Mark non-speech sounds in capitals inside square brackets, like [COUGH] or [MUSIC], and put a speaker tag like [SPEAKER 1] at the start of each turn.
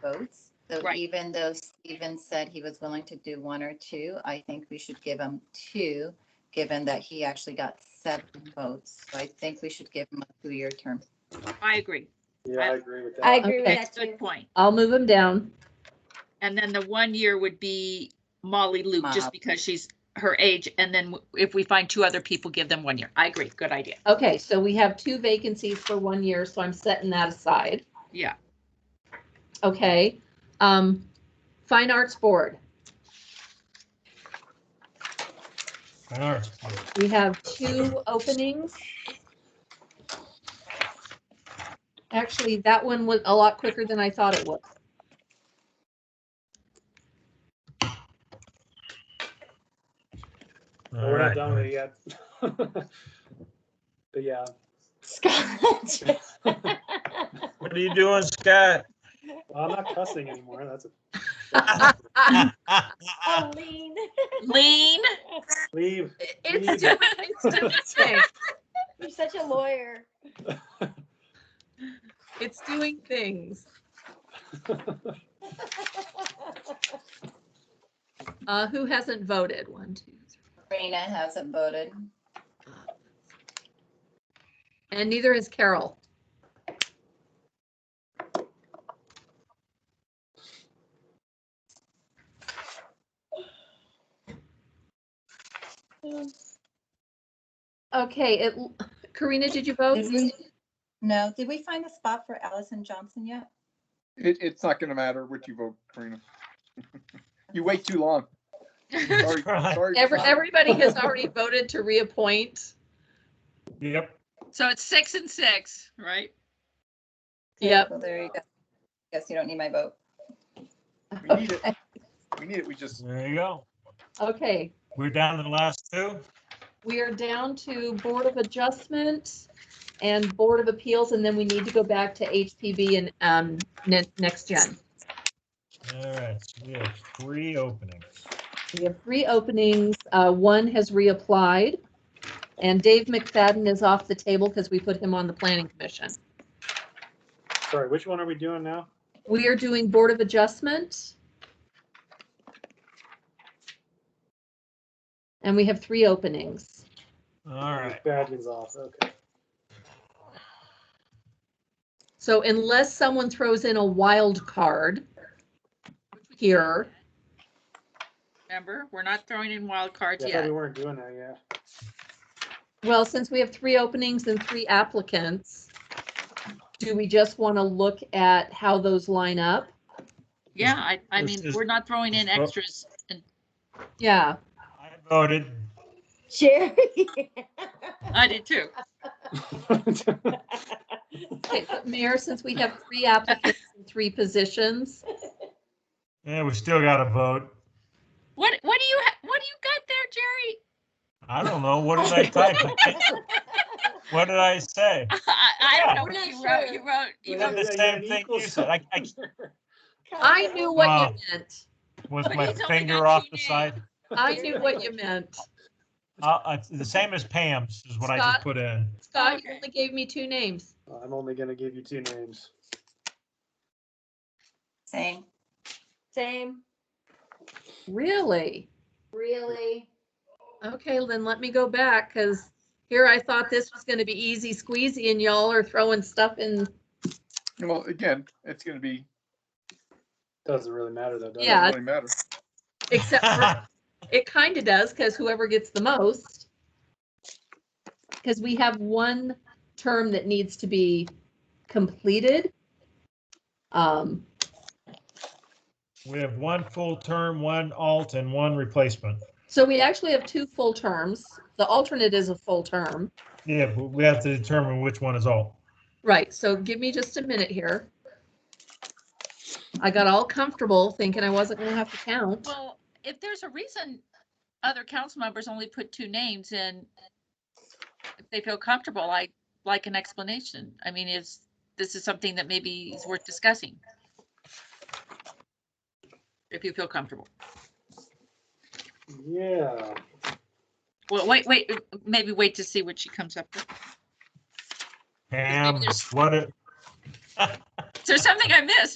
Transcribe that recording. [SPEAKER 1] votes. So
[SPEAKER 2] Right.
[SPEAKER 1] even though Steven said he was willing to do one or two, I think we should give him two, given that he actually got seven votes. So I think we should give him a two-year term.
[SPEAKER 2] I agree.
[SPEAKER 3] Yeah, I agree with
[SPEAKER 4] I
[SPEAKER 3] that.
[SPEAKER 4] agree with
[SPEAKER 2] Okay,
[SPEAKER 4] that too.
[SPEAKER 2] Good point.
[SPEAKER 4] I'll move him down.
[SPEAKER 2] And then the one year would be Molly Luke,
[SPEAKER 1] Molly.
[SPEAKER 2] just because she's her age. And then w- if we find two other people, give them one year. I agree. Good
[SPEAKER 5] [LAUGHS]
[SPEAKER 2] idea.
[SPEAKER 4] Okay, so we have two vacancies for one year, so I'm setting that aside.
[SPEAKER 2] Yeah.
[SPEAKER 4] Okay, um, Fine Arts Board,
[SPEAKER 6] Fine arts.
[SPEAKER 4] we have two openings. Actually, that one went a lot quicker than I thought it would.
[SPEAKER 3] Well, We're not
[SPEAKER 6] Alright.
[SPEAKER 3] done with it yet. [LAUGHS] But yeah,
[SPEAKER 4] Scott.
[SPEAKER 5] [LAUGHS]
[SPEAKER 6] What are you doing, [LAUGHS] Scott?
[SPEAKER 3] [LAUGHS] well, I'm not cussing anymore. That's a
[SPEAKER 5] Colleen.
[SPEAKER 2] Lean. [LAUGHS]
[SPEAKER 3] leave.
[SPEAKER 2] It's doing, it's doing its thing.
[SPEAKER 5] You're such a lawyer. [LAUGHS]
[SPEAKER 4] It's doing things. Uh, who hasn't voted? One, two, three.
[SPEAKER 1] Rena hasn't voted.
[SPEAKER 4] And neither has Carol. Okay, it, Karina, did you vote?
[SPEAKER 1] Did we- No, did we find a spot for Allison Johnson yet?
[SPEAKER 7] It, it's not gonna matter what you vote, Karina. [LAUGHS] You wait too long. Sorry,
[SPEAKER 6] [LAUGHS] Right.
[SPEAKER 7] sorry.
[SPEAKER 4] Every,
[SPEAKER 7] Bob.
[SPEAKER 4] everybody has already voted to reappoint.
[SPEAKER 6] Yep.
[SPEAKER 2] So it's six and six, right?
[SPEAKER 4] Yep.
[SPEAKER 1] Well, there you go. Guess you don't need my vote.
[SPEAKER 7] We need it. We need it. We just,
[SPEAKER 6] There you go.
[SPEAKER 4] Okay,
[SPEAKER 6] We're down to the last two.
[SPEAKER 4] we are down to Board of Adjustment and Board of Appeals, and then we need to go back to HPB and, um, ne- next gen.
[SPEAKER 6] All right, so we have three openings.
[SPEAKER 4] We have three openings. Uh, One has reapplied. And Dave McFadden is off the table because we put him on the Planning Commission.
[SPEAKER 3] Sorry, which one are we doing now?
[SPEAKER 4] We are doing Board of Adjustment. And we have three openings.
[SPEAKER 6] All right,
[SPEAKER 3] Badgins off, okay.
[SPEAKER 4] So unless someone throws in a wild card here,
[SPEAKER 2] Remember, we're not throwing in wild cards
[SPEAKER 3] Yeah, I thought
[SPEAKER 2] yet.
[SPEAKER 3] we weren't doing that
[SPEAKER 4] [LAUGHS]
[SPEAKER 3] yet.
[SPEAKER 4] well, since we have three openings and three applicants, do we just want to look at how those line up?
[SPEAKER 2] Yeah, I, I
[SPEAKER 6] This
[SPEAKER 2] mean,
[SPEAKER 6] is-
[SPEAKER 2] we're not throwing in
[SPEAKER 6] this is-
[SPEAKER 2] extras. And
[SPEAKER 4] Yeah,
[SPEAKER 6] I voted.
[SPEAKER 5] Jerry.
[SPEAKER 2] I did too.
[SPEAKER 4] Okay, but Mayor, since we have three applicants and three positions,
[SPEAKER 6] Yeah, we still got to vote.
[SPEAKER 2] What, what do you, ha- what do you got there, Jerry?
[SPEAKER 6] I don't know. What did I
[SPEAKER 2] [LAUGHS]
[SPEAKER 6] type? What did I say?
[SPEAKER 2] [LAUGHS] I, I don't
[SPEAKER 6] Yeah.
[SPEAKER 2] know
[SPEAKER 5] We're
[SPEAKER 2] what
[SPEAKER 5] not
[SPEAKER 2] you wrote. You
[SPEAKER 5] sure.
[SPEAKER 2] wrote, you
[SPEAKER 3] Yeah,
[SPEAKER 2] wrote,
[SPEAKER 6] The
[SPEAKER 3] yeah,
[SPEAKER 6] same
[SPEAKER 3] yeah,
[SPEAKER 6] thing
[SPEAKER 3] equals-
[SPEAKER 6] you said. I-
[SPEAKER 3] [LAUGHS]
[SPEAKER 6] I-
[SPEAKER 4] I knew what
[SPEAKER 6] Wow.
[SPEAKER 4] you meant.
[SPEAKER 6] Was
[SPEAKER 2] But
[SPEAKER 6] my
[SPEAKER 2] he's only
[SPEAKER 6] finger
[SPEAKER 2] got
[SPEAKER 6] off
[SPEAKER 2] two
[SPEAKER 6] the
[SPEAKER 2] names.
[SPEAKER 6] side?
[SPEAKER 4] I knew what you meant.
[SPEAKER 6] Uh, uh, The same as Pam's is what I
[SPEAKER 4] Scott?
[SPEAKER 6] just put in.
[SPEAKER 4] Scott, you
[SPEAKER 2] Okay.
[SPEAKER 4] only gave me two names.
[SPEAKER 3] I'm only gonna give you two names.
[SPEAKER 1] Same.
[SPEAKER 5] Same,
[SPEAKER 4] Really?
[SPEAKER 5] really?
[SPEAKER 4] Okay, then let me go back because here I thought this was going to be easy squeezy and y'all are throwing stuff in.
[SPEAKER 7] well, again, it's gonna be,
[SPEAKER 3] Doesn't really matter though, does it?
[SPEAKER 4] Yeah.
[SPEAKER 7] doesn't really matter.
[SPEAKER 4] Except for, it kind of does because whoever gets the most. Because we have one term that needs to be completed. Um,
[SPEAKER 6] [LAUGHS] We have one full term, one alt, and one replacement.
[SPEAKER 4] so we actually have two full terms. The alternate is a full term.
[SPEAKER 6] Yeah, but we have to determine which one is alt.
[SPEAKER 4] Right, so give me just a minute here. I got all comfortable thinking I wasn't gonna have to count.
[SPEAKER 2] well, if there's a reason other council members only put two names in, if they feel comfortable, I like an explanation. I mean, is, this is something that maybe is worth discussing. If you feel comfortable.
[SPEAKER 3] Yeah,
[SPEAKER 2] Well, wait, wait, maybe wait to see what she comes up with.
[SPEAKER 6] Pam, what, it-
[SPEAKER 2] Is there something I missed?